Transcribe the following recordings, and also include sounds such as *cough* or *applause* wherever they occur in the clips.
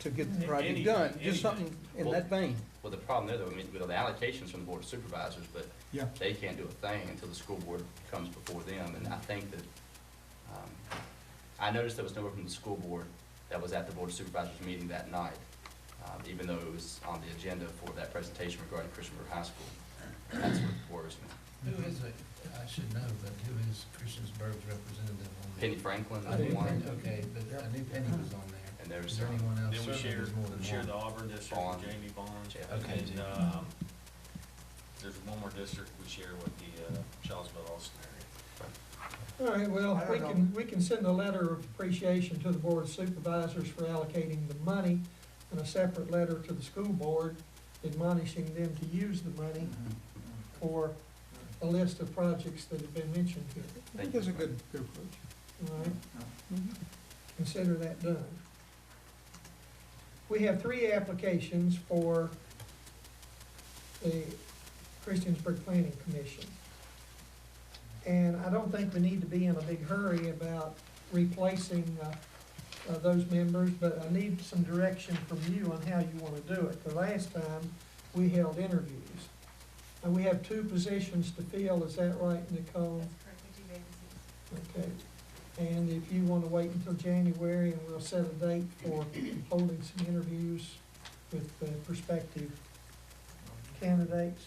to get the project Any- done, just anything. something in that vein. Well, the problem there, though, I mean, with the allocations from the board of supervisors, but Yeah. they can't do a thing until the school board comes before them, and I think that, um, I noticed there was nowhere from the school board that was at the board of supervisors meeting that night, um, even though it was on the agenda for that presentation regarding Christian River High School. That's what worries me. Who is it? I should know, but who is Christiansburg's representative on there? Penny Franklin, I knew Penny, one, okay, but I knew Penny was on there. and there's, Is there anyone else? Then we Certainly share, there's more than share one. the Auburn district Bond. with Jamie Bonds. Yeah. Okay, And, Jamie. um, there's one more district we share with the, uh, Charlesville Austin area. All right, well, I don't we know. can, we can send a letter of appreciation to the board of supervisors for allocating the money and a separate letter to the school board admonishing them to use the money for a list of projects that have been mentioned here. I think that's a good, good approach. All right, consider that done. We have three applications for the Christiansburg Planning Commission. And I don't think we need to be in a big hurry about replacing uh, uh, those members, but I need some direction from you on how you want to do it. The last time, we held interviews. And we have two positions to fill, is that right, Nicole? That's correct, we do vacancies. Okay, and if you wanna wait until January, and we'll set a date for holding some interviews with the prospective candidates.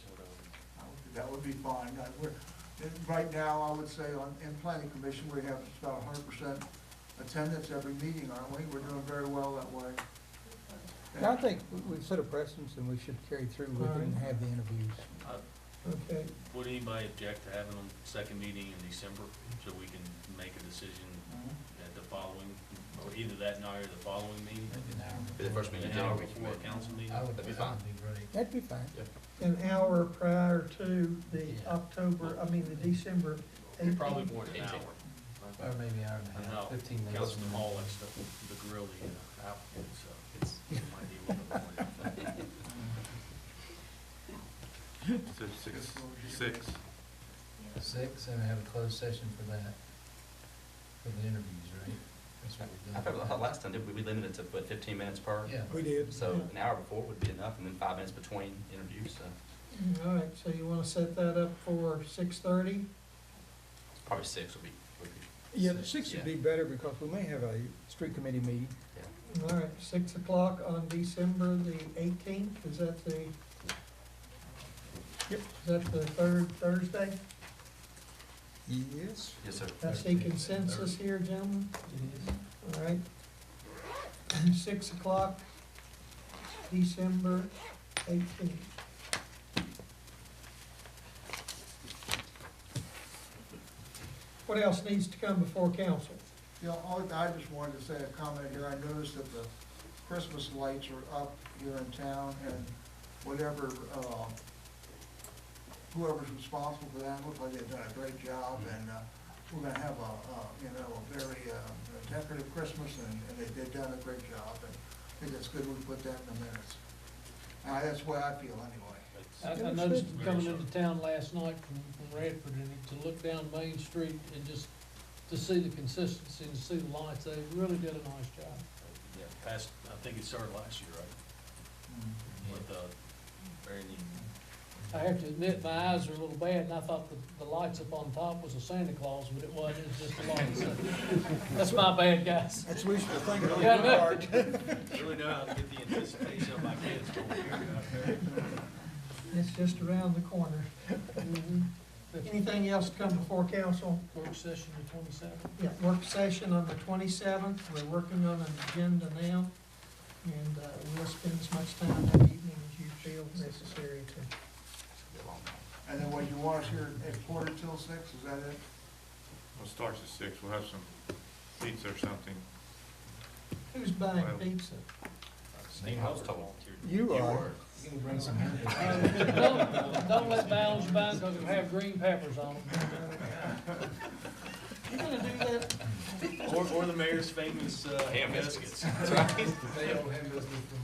That would be fine. Uh, we're- and Right now, I would say on, in planning commission, we have about hundred percent attendance every meeting, aren't we? We're doing very well that way. And I think we- we've set a precedence and we should carry through with it and have the interviews. Okay, Uh, Would anybody object to having them second meeting in December, so we can make a decision at the following, or either that night or the following meeting? Be the first meeting in An hour January. before a council meeting? I would, That'd be I fine. would be ready. That'd be fine. an hour prior to the Yeah. October, I mean, the December eighteenth. Probably more than an Eighteenth. hour. Or maybe hour and a No, half, fifteen minutes. Councilman Hall likes the, the grill, the uh, applicant, so it's, it might be a little bit more than that. *laughs* So six, six. Six, and have a closed session for that, for the interviews, right? That's what we're I doing. thought last time, did we, we limited to, what, fifteen minutes per? Yeah. We did. So an hour before would be enough, and then five minutes between interviews, so All right, so you wanna set that up for six thirty? probably six would be, would be Yeah, the six would be better because we may have a street committee meeting. All right, six o'clock on December the eighteenth, is that the? Yep. Is that the third Thursday? Yes. Yes, sir. I see consensus here, gentlemen, all right. Six o'clock, December eighteenth. What else needs to come before council? You know, all- I just wanted to say a comment here. I noticed that the Christmas lights are up here in town and whatever, uh, whoever's responsible for that, looked like they've done a great job Mm-hmm. and, uh, we're gonna have a, uh, you know, a very, uh, decorative Christmas and, and they, they've done a great job and I think it's good we put that in the minutes. Uh, that's the way I feel anyway. I, I noticed it coming into town last night from, from Radford, and to look down Main Street and just to see the consistency and to see the lights, they really did a nice job. Yeah, past, I think it started last year, right, Mm-hmm. with, uh, very neat. I have to admit, my eyes are a little bad, and I thought the, the lights up on top was a Santa Claus, but it wasn't, it was just the lights. That's my bad, guys. That's wishful thinking on Yeah, I your know. part. Really know how to get the anticipation of my kids going here. It's just around the corner. Mm-hmm. Anything else to come before council? Work session the twenty-seventh. Yeah, work session on the twenty-seventh, we're working on an agenda now, and, uh, we'll spend as much time that evening as you feel necessary to. And then what you want us here at quarter till six, is that it? Well, it starts at six, we'll have some pizza or something. Who's buying pizza? Steve, I was told. You are. You can bring some. in. Don't, don't let Bounds buy, because it'll have green peppers on them. You gonna do that? Or, or the mayor's famous, uh, Ham biscuits. That's right. They owe him business.